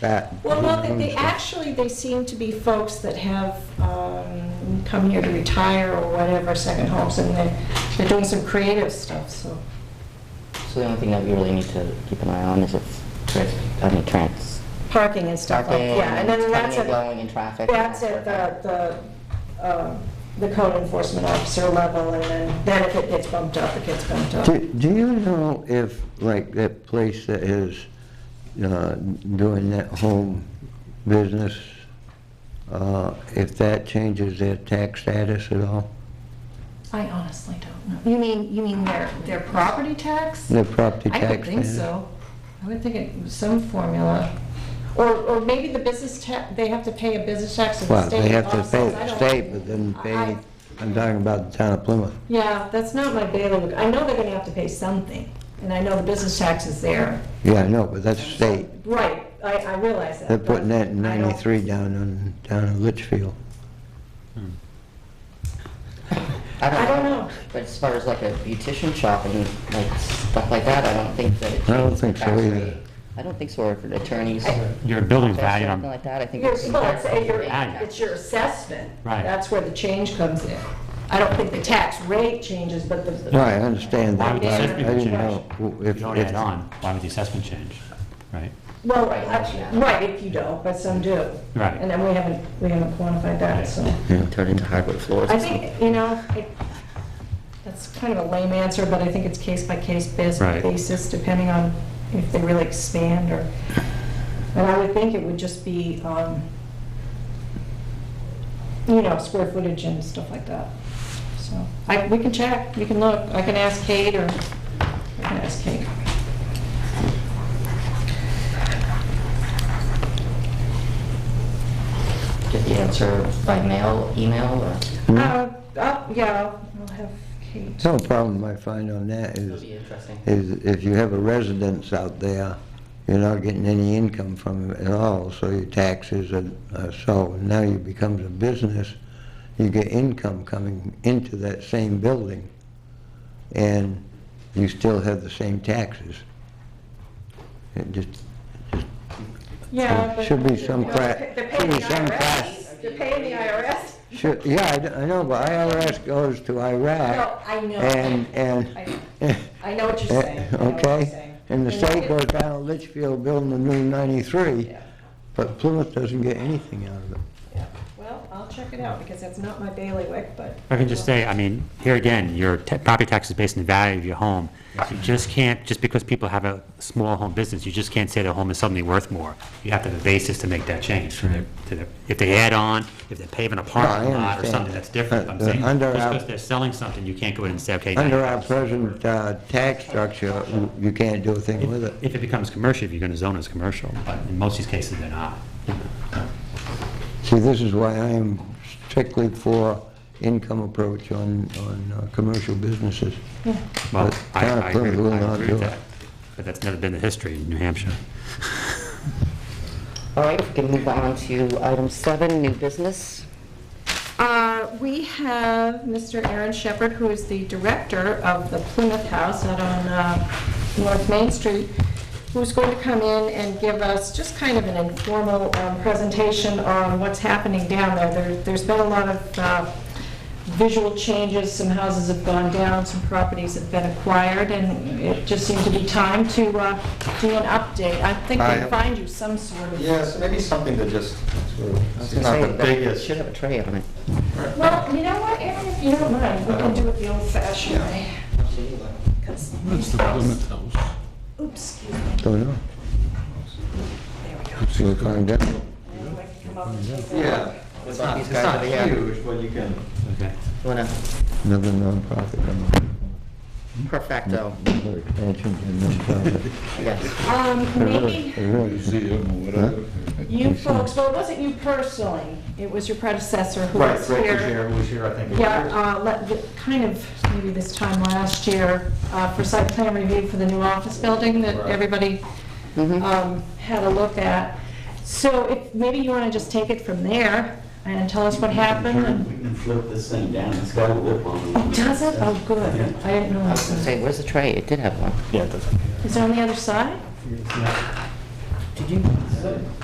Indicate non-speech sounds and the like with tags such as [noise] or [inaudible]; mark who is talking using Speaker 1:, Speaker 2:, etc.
Speaker 1: that.
Speaker 2: Well, no, they, they, actually, they seem to be folks that have, um, come here to retire or whatever, second homes, and they're, they're doing some creative stuff, so.
Speaker 3: So the only thing that we really need to keep an eye on is if trans, I mean, trans.
Speaker 2: Parking and stuff, like- yeah, and then
Speaker 3: Parking,
Speaker 2: that's
Speaker 3: coming and
Speaker 2: at,
Speaker 3: Going in traffic. and
Speaker 2: that's
Speaker 3: that
Speaker 2: at
Speaker 3: sort of thing.
Speaker 2: the, the, um, the code enforcement officer level, and then, then if it gets bumped up, it gets bumped up.
Speaker 1: Do do you know if, like, that place that is uh, doing that home business, uh, if that changes their tax status at all?
Speaker 2: I honestly don't know. You mean, you mean their, their property tax?
Speaker 1: Their property
Speaker 2: I
Speaker 1: tax?
Speaker 2: don't think
Speaker 1: status?
Speaker 2: so. I would think it was some formula. Or, or maybe the business tax, they have to pay a business tax in the
Speaker 1: Well,
Speaker 2: state.
Speaker 1: they have to
Speaker 2: law
Speaker 1: pay
Speaker 2: says I
Speaker 1: the
Speaker 2: don't-
Speaker 1: state, but then
Speaker 2: I-
Speaker 1: pay,
Speaker 2: I-
Speaker 1: I'm talking about the town of Plymouth.
Speaker 2: Yeah, that's not my bailiwick. I know they're gonna have to pay something, and I know the business tax is there.
Speaker 1: Yeah, I know, but that's state.
Speaker 2: Right, I, I realize that.
Speaker 1: They're putting
Speaker 2: but
Speaker 1: that in
Speaker 2: I don't-
Speaker 1: ninety-three down on, down in Litchfield.
Speaker 2: I don't know.
Speaker 3: But as far as like a beautician shop and like stuff like that, I don't think that it.
Speaker 1: I don't
Speaker 3: changes the
Speaker 1: think so
Speaker 3: tax
Speaker 1: either.
Speaker 3: rate. I don't think so, or for attorneys.
Speaker 4: Your building's
Speaker 3: office,
Speaker 4: valued
Speaker 3: Something
Speaker 4: on,
Speaker 3: like that, I think.
Speaker 2: Your,
Speaker 3: it's-
Speaker 2: well, it's, it's your,
Speaker 4: Right.
Speaker 2: it's your assessment.
Speaker 4: Right.
Speaker 2: That's where the change comes in. I don't think the tax rate changes, but the.
Speaker 1: No, I understand
Speaker 4: why
Speaker 1: that,
Speaker 4: would
Speaker 1: but
Speaker 4: the
Speaker 2: Yeah.
Speaker 1: I
Speaker 4: assessment
Speaker 1: I
Speaker 4: change?
Speaker 1: didn't know who-
Speaker 4: If
Speaker 1: if,
Speaker 4: you don't
Speaker 1: if,
Speaker 4: add on, why would the assessment change, right?
Speaker 2: Well, I- right, if you don't, but some do.
Speaker 4: Right.
Speaker 2: And then we haven't, we haven't quantified that, so.
Speaker 3: Turn into hardwood floors.
Speaker 2: I
Speaker 3: or something.
Speaker 2: think, you know, it- that's kind of a lame answer, but I think it's case by case bas-
Speaker 4: Right.
Speaker 2: basis, depending on if they really expand or, and I would think it would just be, um, you know, square footage and stuff like that. So, I, we can check, we can look, I can ask Kate or, I can ask Kate.
Speaker 3: Get the answer by mail, email, or.
Speaker 4: Mm-hmm.
Speaker 2: Uh, oh, yeah, I'll- I'll have Kate.
Speaker 1: some problem I find on that
Speaker 3: It'll
Speaker 1: is,
Speaker 3: be interesting.
Speaker 1: is if you have a residence out there, you're not getting any income from it at all, so your taxes are, are so, now you becomes a business, you get income coming into that same building, and you still have the same taxes. It just,
Speaker 2: Yeah, but.
Speaker 1: should be some
Speaker 2: Well,
Speaker 1: crack,
Speaker 2: They're
Speaker 1: should
Speaker 2: paying the
Speaker 1: be some crack.
Speaker 2: IRS, they're paying the IRS.
Speaker 1: Sure, yeah, I d- I know, but IRS goes to
Speaker 2: No,
Speaker 1: Iraq.
Speaker 2: I know.
Speaker 1: And,
Speaker 2: I-
Speaker 1: and. [laughs]
Speaker 2: I know what you're saying. I know what you're
Speaker 1: Uh, Okay?
Speaker 2: saying.
Speaker 1: And the
Speaker 2: And you
Speaker 1: state
Speaker 2: get-
Speaker 1: goes down to Litchfield building the new 93,
Speaker 2: Yeah,
Speaker 1: but Plymouth doesn't get anything out of it.
Speaker 2: yeah. Well, I'll check it out, because that's not my bailiwick, but.
Speaker 4: I can just say, I mean, here again, your ta- property tax is based on the value of your home. You just can't, just because people have a small home business, you just can't say their home is suddenly worth more. You have to have a basis to make that change. for their- to their- If they add on, if they pave an apartment lot or
Speaker 1: understand.
Speaker 4: something, that's different.
Speaker 1: Uh,
Speaker 4: I'm
Speaker 1: uh,
Speaker 4: saying, just
Speaker 1: under our-
Speaker 4: because they're selling something, you can't go in and say, okay. now
Speaker 1: Under
Speaker 4: you-
Speaker 1: our present uh, tax structure, you- you can't do a thing with it.
Speaker 4: If it becomes commercial, if you're going to zone it as commercial, but in most of these cases, they're not.
Speaker 1: See, this is why I am strictly for income approach on, on uh, commercial businesses.
Speaker 4: Well,
Speaker 1: But
Speaker 4: I
Speaker 1: town of
Speaker 4: I agree
Speaker 1: Plymouth will
Speaker 4: I
Speaker 1: not
Speaker 4: agree
Speaker 1: do
Speaker 4: with
Speaker 1: it.
Speaker 4: that, but that's never been the history in New Hampshire.
Speaker 3: All right, we can move on to item seven, new business.
Speaker 2: Uh, We have Mr. Aaron Shepherd, who is the director of the Plymouth House out on uh, North Main Street, who's going to come in and give us just kind of an informal um, presentation on what's happening down there. There- There's been a lot of uh, visual changes, some houses have gone down, some properties have been acquired, and it just seemed to be time to uh, do an update. I think
Speaker 5: I
Speaker 2: they
Speaker 5: have-
Speaker 2: find you some sort of...
Speaker 5: Yeah, so maybe something to just sort
Speaker 3: I
Speaker 5: of,
Speaker 3: was
Speaker 5: it's
Speaker 3: gonna
Speaker 5: not
Speaker 3: say,
Speaker 5: the
Speaker 3: that
Speaker 5: biggest.
Speaker 3: Should have a tray on it.
Speaker 2: Well, you know what, Aaron, if you don't mind, we can do it the old-fashioned way. Because these house, oops, excuse me,
Speaker 1: Don't know. See, we're going down.
Speaker 2: I don't like to come up and take that.
Speaker 5: Yeah, it's not,
Speaker 3: these
Speaker 5: it's
Speaker 3: guys
Speaker 5: not
Speaker 3: over here.
Speaker 5: huge, but you can,
Speaker 4: Okay.
Speaker 3: You wanna
Speaker 1: another nonprofit.
Speaker 3: perfecto,
Speaker 1: Another expansion to nonprofit.
Speaker 3: yes.
Speaker 2: Um, maybe
Speaker 6: museum or whatever.
Speaker 2: you folks, well, it wasn't you personally, it was your predecessor who
Speaker 5: right,
Speaker 2: was
Speaker 5: right,
Speaker 2: here.
Speaker 5: who's here, who's here, I think.
Speaker 2: Yeah, uh, let- the- kind of, maybe this time last year, uh, for site plan review for the new office building that
Speaker 5: Right.
Speaker 2: everybody um, had a look at. So if, maybe you want to just take it from there and tell us what happened and...
Speaker 7: We can flip this thing down, it's got a lip on
Speaker 2: Oh,
Speaker 7: it.
Speaker 2: does it? Oh, good. I didn't
Speaker 3: I
Speaker 2: know.
Speaker 3: was gonna
Speaker 2: Is
Speaker 3: say, where's the tray? It did have one.
Speaker 2: it on the other side?
Speaker 7: Did you?